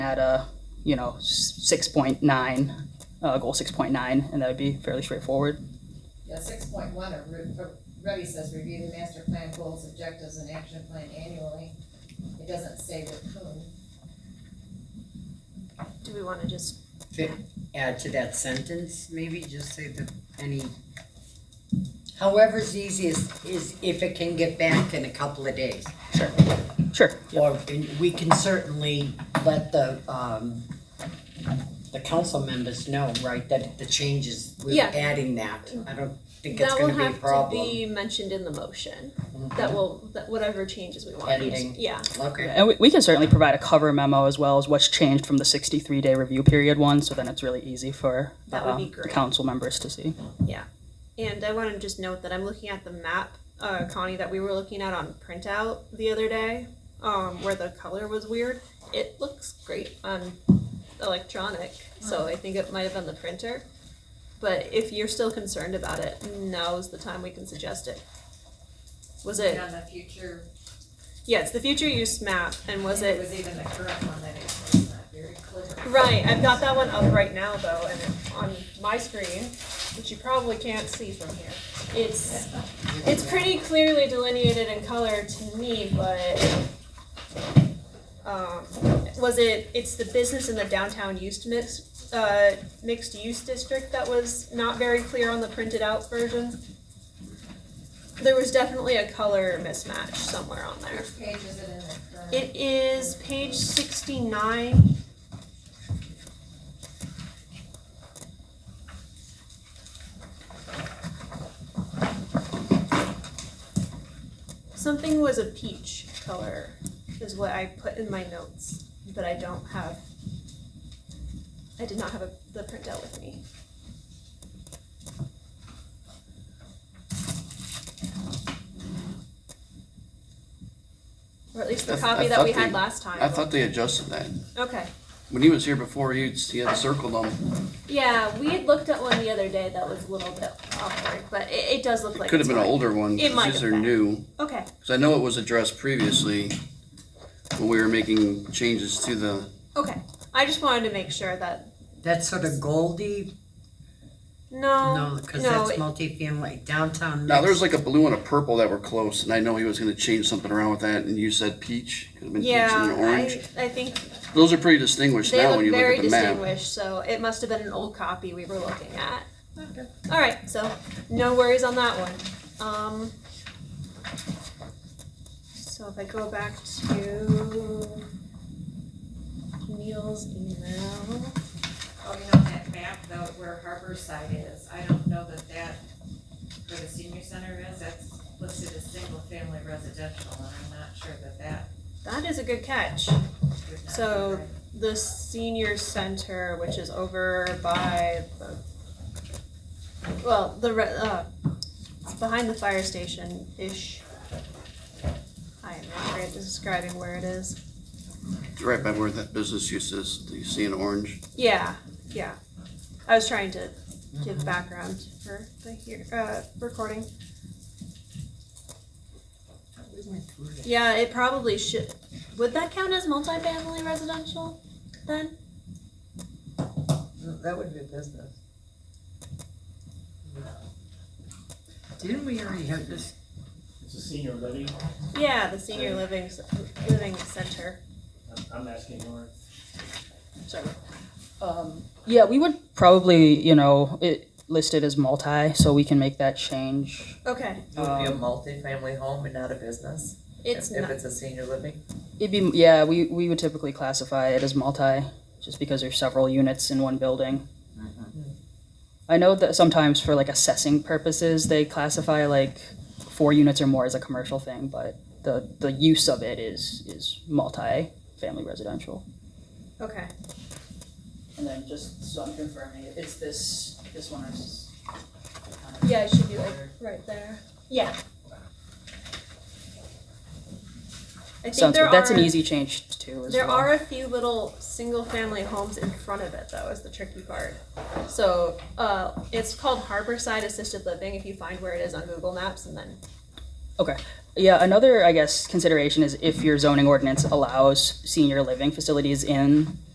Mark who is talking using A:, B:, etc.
A: at a, you know, six point nine, uh, goal six point nine, and that would be fairly straightforward.
B: Yeah, six point one already says review the master plan goals, objectives, and action plan annually. It doesn't say with whom.
C: Do we wanna just,
D: add to that sentence, maybe just say that any, however's easiest is if it can get back in a couple of days.
A: Sure, sure,
D: Or and we can certainly let the, um, the council members know, right, that the changes, we're
C: Yeah.
D: adding that. I don't think it's
C: that will
D: gonna be a
C: have to
D: problem. Mm-hmm.
C: be mentioned in the motion, that will, that whatever changes we want.
D: Editing.
C: Yeah,
D: Okay,
A: and we, we can certainly provide a cover memo as well as what's changed from the sixty-three day review period one, so then it's really easy for
C: That would
A: um,
C: be
A: the
C: great.
A: council members to see.
C: and I wanna just note that I'm looking at the map, uh, Connie, that we were looking at on printout the other day, um, where the color was weird. It looks great on electronic, so I think it might have been the printer. But if you're still concerned about it, now's the time we can suggest it. Was
B: And
C: it,
B: on the future,
C: yes, the future use map, and was
B: and It
C: it
B: was even the current one that it was not very clear.
C: Right, I've got that one up right now though, and it- on my screen, which you probably can't see from here, it's, it's pretty clearly delineated in color to me, but. Um, was it, it's the business in the downtown used mix, uh, mixed use district that was not very clear on the printed out version? There was definitely a color mismatch somewhere on there.
B: Which page is it in the current?
C: It is page sixty-nine. Something was a peach color is what I put in my notes, but I don't have. I did not have a, the printout with me. Or at least the
E: I th- I
C: copy that we
E: thought
C: had
E: they-
C: last time.
E: I thought they adjusted that.
C: Okay,
E: When he was here before, he, he had circled them.
C: yeah, we had looked at one the other day that was a little bit awkward, but it, it does look like
E: Could
C: it's
E: have been an
C: fine.
E: older one,
C: It might
E: because these
C: have been.
E: are new.
C: Okay,
E: Because I know it was addressed previously when we were making changes to the,
C: okay, I just wanted to make sure that,
D: that's sort of Goldie,
C: no,
D: no, cause
C: Um, no,
D: that's
C: it-
D: multifamily, downtown
E: now there's
D: mixed.
E: like a blue and a purple that were close, and I know he was gonna change something around with that, and you said peach. Could have been peach and
C: yeah,
E: an orange.
C: I, I think
E: Those are pretty distinguished
C: They
E: now when
C: look
E: you look
C: very
E: at the map.
C: distinguished, so it must have been an old copy we were looking at. Alright, so no worries on that one. Um. So if I go back to Neil's email.
B: Oh, you know, that map though, where Harborside is, I don't know that that, where the senior center is, that's listed as single family residential, and I'm not sure that that
C: That is a good catch.
B: would not be
C: So-
B: right.
C: The senior center, which is over by the, well, the, re- uh, it's behind the fire station-ish. I am not great at describing where it is.
E: It's right by where that business use is, that you see in orange.
C: Yeah, yeah. I was trying to give background for the here, uh, recording.
D: We went through that.
C: Yeah, it probably should. Would that count as multifamily residential then?
F: That would be a business.
D: Didn't we already have this?
G: It's a senior living,
C: Yeah, the senior living, s- living center.
G: I'm, I'm asking Lauren.
C: Sorry.
A: Um, yeah, we would probably, you know, it listed as multi, so we can make that change.
C: Okay,
F: It would be a
A: Um,
F: multifamily home and not a business. if-
C: it's
F: If
C: not,
F: it's a senior living.
A: It'd be, yeah, we, we would typically classify it as multi, just because there's several units in one building. I know that sometimes for like assessing purposes, they classify like four units or more as a commercial thing, but the, the use of it is, is multi-family residential.
C: okay.
A: And then just so I'm confirming, it's this, this one is.
C: Yeah, it should be like right there. Yeah. I think
A: Sounds
C: there
A: good, that's an
C: are-
A: easy change too as well.
C: There are a few little single-family homes in front of it, though, is the tricky part. So, uh, it's called Harborside Assisted Living, if you find where it is on Google Maps, and then,
A: Yeah, another, I guess, consideration is if your zoning ordinance allows senior living facilities in